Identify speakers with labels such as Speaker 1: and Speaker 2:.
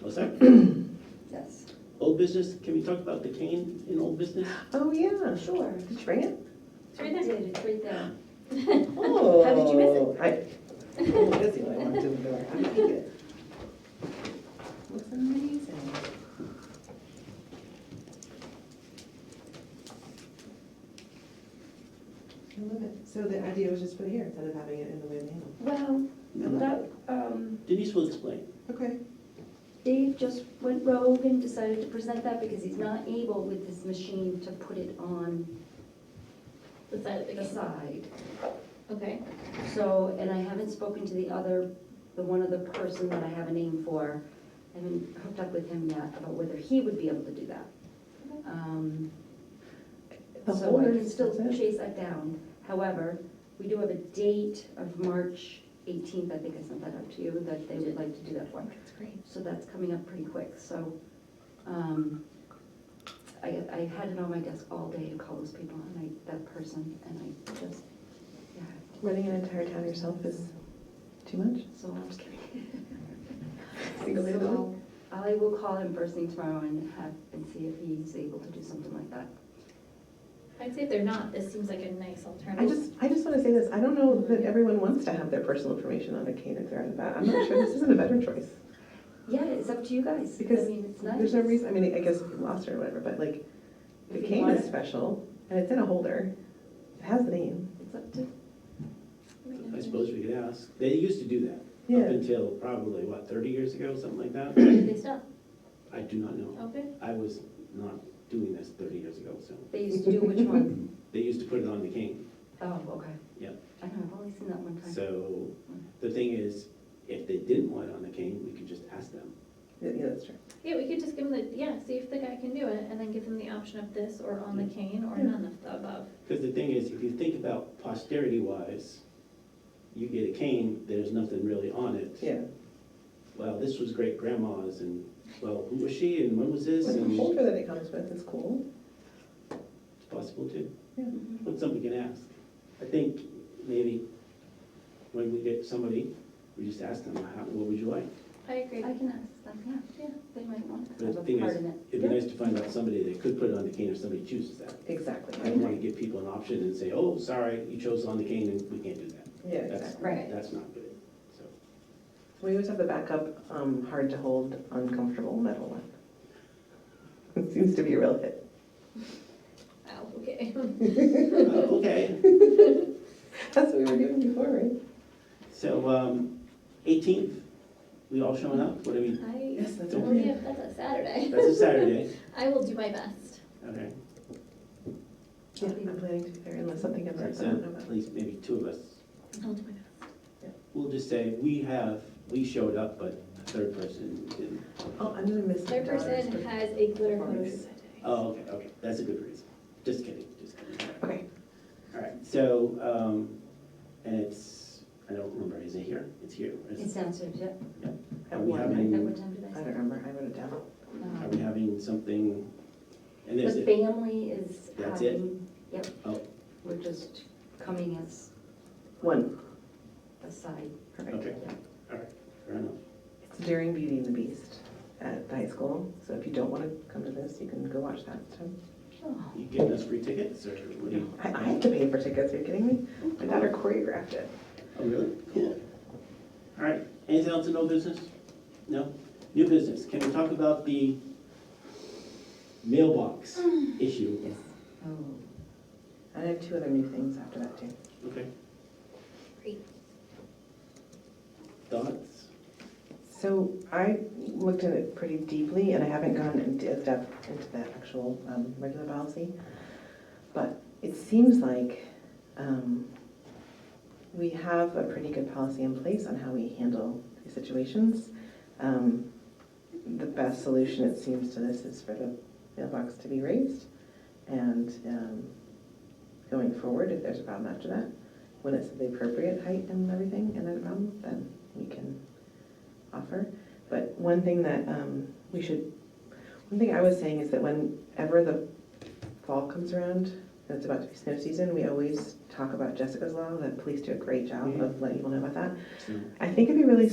Speaker 1: What's that?
Speaker 2: Yes.
Speaker 1: Old business, can we talk about the cane in old business?
Speaker 3: Oh, yeah.
Speaker 2: Sure.
Speaker 3: Did you bring it?
Speaker 4: It's right there.
Speaker 2: It's right there.
Speaker 3: Oh.
Speaker 2: How did you miss
Speaker 3: I, I was busy when I walked in the door. I like it. Looks amazing. I love it. So the idea was just put it here instead of having it in the way of the handle.
Speaker 2: Well, that, um,
Speaker 1: Denise will explain.
Speaker 3: Okay.
Speaker 2: Dave just went rogue and decided to present that because he's not able with his machine to put it on
Speaker 4: The side of the
Speaker 2: the
Speaker 4: game.
Speaker 2: side.
Speaker 4: Okay.
Speaker 2: So, and I haven't spoken to the other, the one other person that I have a name for. I haven't hooked up with him yet about whether he would be able to do that.
Speaker 4: Okay.
Speaker 2: Um,
Speaker 3: The
Speaker 2: So I can
Speaker 3: holders,
Speaker 2: still
Speaker 3: that's it.
Speaker 2: chase that down. However, we do have a date of March 18th, I think I sent that out to you, that they would like to do that for.
Speaker 4: That's great.
Speaker 2: So that's coming up pretty quick, so um, I I had it on my desk all day to call those people and I, that person, and I just, yeah,
Speaker 3: Running an entire town yourself is too much?
Speaker 2: so I'm just kidding.
Speaker 3: Single-handedly?
Speaker 2: So I will call him first thing tomorrow and have, and see if he's able to do something like that.
Speaker 4: I'd say if they're not, this seems like a nice
Speaker 3: I
Speaker 4: alternative.
Speaker 3: just, I just want to say this, I don't know that everyone wants to have their personal information on a cane if they're at a bat. I'm not sure this isn't a better choice.
Speaker 2: Yeah, it's up to you guys. I
Speaker 3: Because
Speaker 2: mean, it's nice.
Speaker 3: There's no reason, I mean, I guess if you lost it or whatever, but like, the
Speaker 2: If you
Speaker 3: cane
Speaker 2: want
Speaker 3: is
Speaker 2: it.
Speaker 3: special, and it's in a holder, it has the name.
Speaker 2: It's up to,
Speaker 1: I suppose we could ask. They used to do that. Up
Speaker 3: Yeah,
Speaker 1: until probably, what, 30 years ago, something like that?
Speaker 4: Did they stop?
Speaker 1: I do not know.
Speaker 4: Okay.
Speaker 1: I was not doing this 30 years ago, so.
Speaker 2: they used to do which one?
Speaker 1: They used to put it on the cane.
Speaker 2: Oh, okay.
Speaker 1: Yeah.
Speaker 2: I know, I've only seen that one time.
Speaker 1: So the thing is, if they didn't want it on the cane, we could just ask them.
Speaker 3: yeah, yeah, that's true.
Speaker 4: Yeah, we could just give them the, yeah, see if the guy can do it, and then give them the option of this or on the cane or
Speaker 3: Yeah.
Speaker 4: none of the above.
Speaker 1: Because the thing is, if you think about posterity wise, you get a cane, there's nothing really on it.
Speaker 3: Yeah.
Speaker 1: Well, this was great grandma's and, well, who was she and when was this?
Speaker 3: With the
Speaker 1: And
Speaker 3: holder that it comes with, it's cool.
Speaker 1: it's possible too.
Speaker 3: Yeah.
Speaker 2: Mm-hmm.
Speaker 1: But somebody can ask. I think maybe when we get somebody, we just ask them, how, what would you like?
Speaker 4: I agree.
Speaker 2: I can ask them, yeah,
Speaker 4: Yeah.
Speaker 2: they might want to
Speaker 1: But
Speaker 2: have
Speaker 1: the
Speaker 2: a
Speaker 1: thing
Speaker 2: part
Speaker 1: is,
Speaker 2: in it.
Speaker 1: It'd be nice to find out somebody that could put it on the cane if somebody chooses that.
Speaker 3: Exactly.
Speaker 1: I don't want to give people an option and say, oh, sorry, you chose on the cane and we can't do that.
Speaker 3: Yeah,
Speaker 1: That's-
Speaker 3: exactly.
Speaker 2: Right.
Speaker 1: That's not good, so.
Speaker 3: We always have the backup, um, hard to hold, uncomfortable metal one. It seems to be a real hit.
Speaker 4: Ow, okay.
Speaker 1: Uh, Okay.
Speaker 3: That's what we were doing before, right?
Speaker 1: So, um, eighteenth, we all showing up? What do we,
Speaker 4: I,
Speaker 3: Yes, that's
Speaker 4: well, oh, yeah,
Speaker 3: okay.
Speaker 4: that's a Saturday.
Speaker 1: that's a Saturday,
Speaker 4: I will do my best.
Speaker 1: okay.
Speaker 3: Yeah, I'm planning to be there unless something comes up that I don't know
Speaker 1: So
Speaker 3: about.
Speaker 1: at least maybe two of us,
Speaker 4: I'll do my best.
Speaker 1: we'll just say, we have, we showed up, but a third person didn't.
Speaker 3: Oh, I'm gonna miss my
Speaker 4: Third
Speaker 3: daughter's
Speaker 4: person
Speaker 3: birthday.
Speaker 4: has a glitter hose.
Speaker 3: performance.
Speaker 1: Oh, okay, okay, that's a good reason. Just kidding, just kidding.
Speaker 3: Okay,
Speaker 1: All right, so, um, and it's, I don't remember, is it here? It's here. is it?
Speaker 2: It's downstairs, yeah.
Speaker 3: at
Speaker 1: We
Speaker 3: one,
Speaker 1: have
Speaker 3: right?
Speaker 1: any-
Speaker 2: At what time did I
Speaker 3: I
Speaker 2: say?
Speaker 3: don't remember, I wrote it down.
Speaker 1: Are
Speaker 2: Um,
Speaker 1: we having something? And there's,
Speaker 2: The
Speaker 1: a-
Speaker 2: family is
Speaker 1: That's it?
Speaker 2: having, yep.
Speaker 1: Oh.
Speaker 2: We're just coming as
Speaker 3: One,
Speaker 2: a side.
Speaker 3: perfect.
Speaker 1: okay, all right, fair enough.
Speaker 3: It's during Beauty and the Beast at the high school, so if you don't wanna come to this, you can go watch that instead.
Speaker 2: Oh,
Speaker 1: You giving us free tickets or what do you?
Speaker 3: I, I have to pay for tickets, are you kidding me? My daughter choreographed it.
Speaker 1: Oh, really? Cool. All right, anything else in old business? No? New business, can we talk about the mailbox issue?
Speaker 2: yes. Oh.
Speaker 3: And I have two other new things after that too.
Speaker 1: Okay.
Speaker 4: Great.
Speaker 1: Thoughts?
Speaker 3: So I looked at it pretty deeply, and I haven't gone into as depth into the actual um, regular policy. But it seems like um, we have a pretty good policy in place on how we handle these situations. Um, The best solution, it seems to this, is for the mailbox to be raised. And um, going forward, if there's a problem after that, when it's the appropriate height and everything, and there's a problem, then we can offer. But one thing that um, we should, one thing I was saying is that whenever the fall comes around, and it's about to be snow season, we always talk about Jessica's Law, the police do a great job of letting people know about that.
Speaker 1: So-
Speaker 3: I think it'd be really